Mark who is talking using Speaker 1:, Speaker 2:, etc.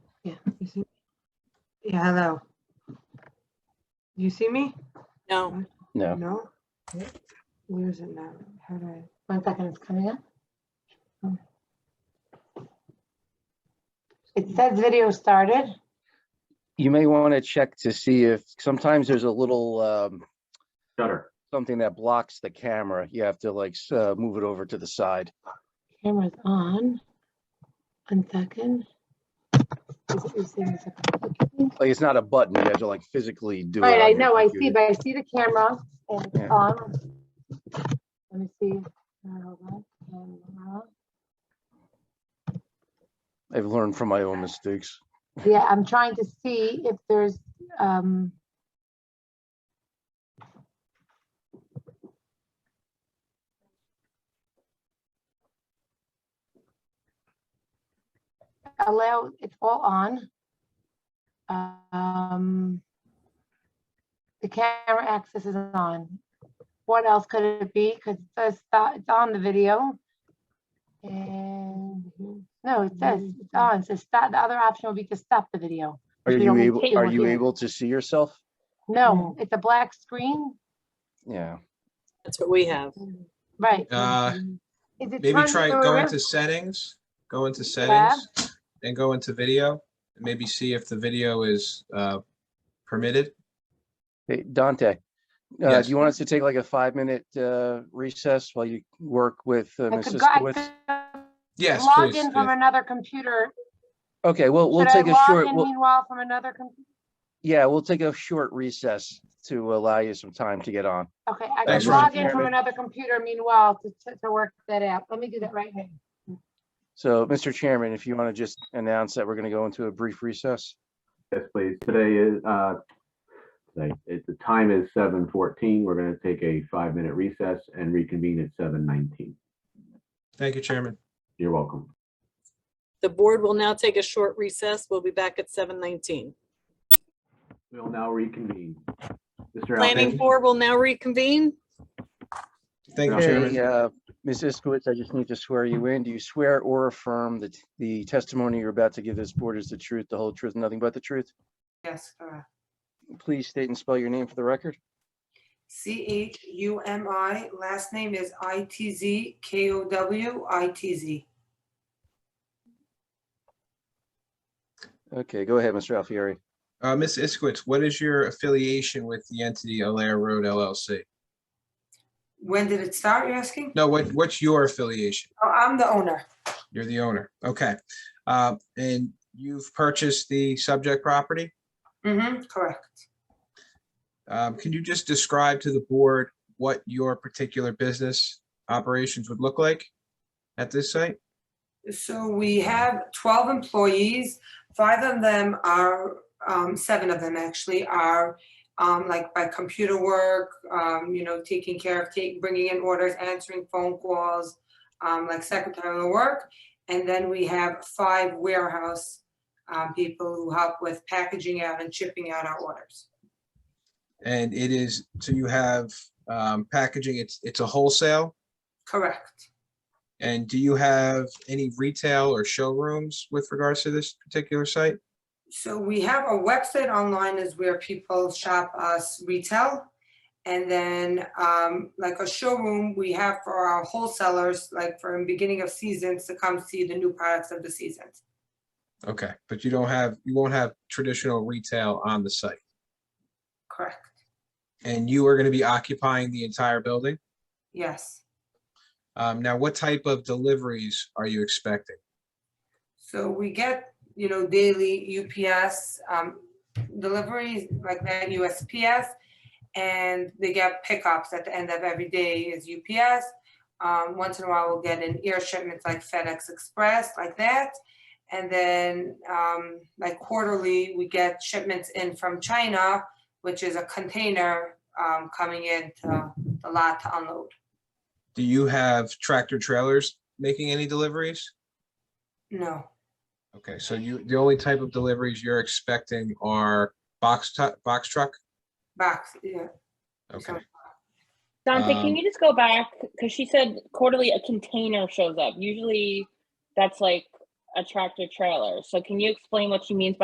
Speaker 1: Yeah, hello. You see me?
Speaker 2: No,
Speaker 3: No.
Speaker 1: No? Where is it now? How do I? Oh.
Speaker 4: One second, it's coming up. It says video started.
Speaker 3: You may want to check to see if, sometimes there's a little um,
Speaker 5: Shutter.
Speaker 3: something that blocks the camera. You have to like s- uh, move it over to the side.
Speaker 4: Camera's on. One second. Is it- is there a second?
Speaker 3: Like, it's not a button. You have to like physically do it.
Speaker 4: Right,
Speaker 3: on
Speaker 4: I
Speaker 3: your
Speaker 4: know, I see,
Speaker 3: computer.
Speaker 4: but I see the camera and it's
Speaker 3: Yeah.
Speaker 4: on. Let me see. Uh, hold on. Camera.
Speaker 3: I've learned from my own mistakes.
Speaker 4: Yeah, I'm trying to see if there's, um. Allow, it's all on. Um. The camera access is on. What else could it be? Cause it says, that it's on the video. And. No, it says, it's on, it says stop, the other option will be to stop the video.
Speaker 3: Are
Speaker 4: If you
Speaker 3: you
Speaker 4: don't
Speaker 3: able,
Speaker 4: take
Speaker 3: are
Speaker 4: one
Speaker 3: you
Speaker 4: here.
Speaker 3: able to see yourself?
Speaker 4: No, it's a black screen,
Speaker 3: Yeah.
Speaker 2: that's what we have.
Speaker 4: right?
Speaker 6: Uh,
Speaker 4: Is it
Speaker 6: Maybe
Speaker 4: turned
Speaker 6: try, go
Speaker 4: over?
Speaker 6: into settings, go into settings, and go into video, and maybe see if the video is uh, permitted.
Speaker 3: Hey, Dante, uh,
Speaker 6: Yes.
Speaker 3: do you want us to take like a five-minute uh, recess while you work with uh,
Speaker 4: I
Speaker 3: Ms.
Speaker 4: could go- I
Speaker 3: Siskowitz?
Speaker 4: could
Speaker 6: Yes,
Speaker 4: Log
Speaker 6: please.
Speaker 4: in from
Speaker 6: yeah.
Speaker 4: another computer.
Speaker 3: Okay, well, we'll
Speaker 4: Should I
Speaker 3: take a
Speaker 4: log
Speaker 3: short,
Speaker 4: in
Speaker 3: we'll-
Speaker 4: Meanwhile, from another, com-
Speaker 3: yeah, we'll take a short recess to allow you some time to get on.
Speaker 4: okay, I
Speaker 6: Thanks,
Speaker 4: could log
Speaker 3: Ryan.
Speaker 4: in from another computer meanwhile to, to- to work that out. Let me do that right now.
Speaker 3: So, Mr. Chairman, if you want to just announce that we're going to go into a brief recess.
Speaker 5: Yes, please. Today is, uh, today, it- the time is seven fourteen. We're gonna take a five-minute recess and reconvene at seven nineteen.
Speaker 6: Thank you, Chairman.
Speaker 5: You're welcome.
Speaker 2: The board will now take a short recess. We'll be back at 7:19.
Speaker 5: We'll now reconvene. Mr.
Speaker 2: Planning
Speaker 5: Alpin,
Speaker 2: board will now reconvene.
Speaker 6: Thank you,
Speaker 5: Okay,
Speaker 6: Chairman.
Speaker 3: Hey, uh, Ms. Iskowitz, I just need to swear you in. Do you swear or affirm that the testimony you're about to give this board is the truth, the whole truth, and nothing but the truth?
Speaker 7: Yes, correct.
Speaker 3: Please state and spell your name for the record.
Speaker 7: C H U M I, last name is I T Z K O W I T Z.
Speaker 3: Okay, go ahead, Mr. Alfieri.
Speaker 6: Uh, Ms. Iskowitz, what is your affiliation with the entity Alair Road LLC?
Speaker 7: When did it start, you're asking?
Speaker 6: No, what, what's your affiliation?
Speaker 7: Oh, I'm the owner.
Speaker 6: You're the owner. Okay. Uh, And you've purchased the subject property?
Speaker 7: Mm-hmm, correct.
Speaker 6: Um, Can you just describe to the board what your particular business operations would look like at this site?
Speaker 7: So we have twelve employees. Five of them are, um, seven of them actually are, um, like by computer work, um, you know, taking care of, take, bringing in orders, answering phone calls, um, like secretarial work. And then we have five warehouse, um, people who help with packaging out and shipping out our orders.
Speaker 6: And it is, so you have um, packaging, it's, it's a wholesale?
Speaker 7: Correct.
Speaker 6: And do you have any retail or showrooms with regards to this particular site?
Speaker 7: So we have a website online is where people shop us retail. And then um, like a showroom, we have for our wholesalers, like for the beginning of seasons to come see the new products of the seasons.
Speaker 6: Okay, but you don't have, you won't have traditional retail on the site?
Speaker 7: Correct.
Speaker 6: And you are going to be occupying the entire building?
Speaker 7: Yes.
Speaker 6: Um, Now, what type of deliveries are you expecting?
Speaker 7: So we get, you know, daily UPS um, deliveries like that USPS. And they get pickups at the end of every day is UPS. Um, once in a while, we'll get an air shipments like FedEx Express, like that. And then um, like quarterly, we get shipments in from China, which is a container um, coming in to the lot to unload.
Speaker 6: Do you have tractor trailers making any deliveries?
Speaker 7: No,
Speaker 6: Okay, so you, the only type of deliveries you're expecting are box tu- box truck?
Speaker 7: box, yeah.
Speaker 6: Okay,
Speaker 8: Dante,
Speaker 6: Um,
Speaker 8: can you just go back? Because she said quarterly a container shows up. Usually that's like a tractor trailer. So can you explain what she means by?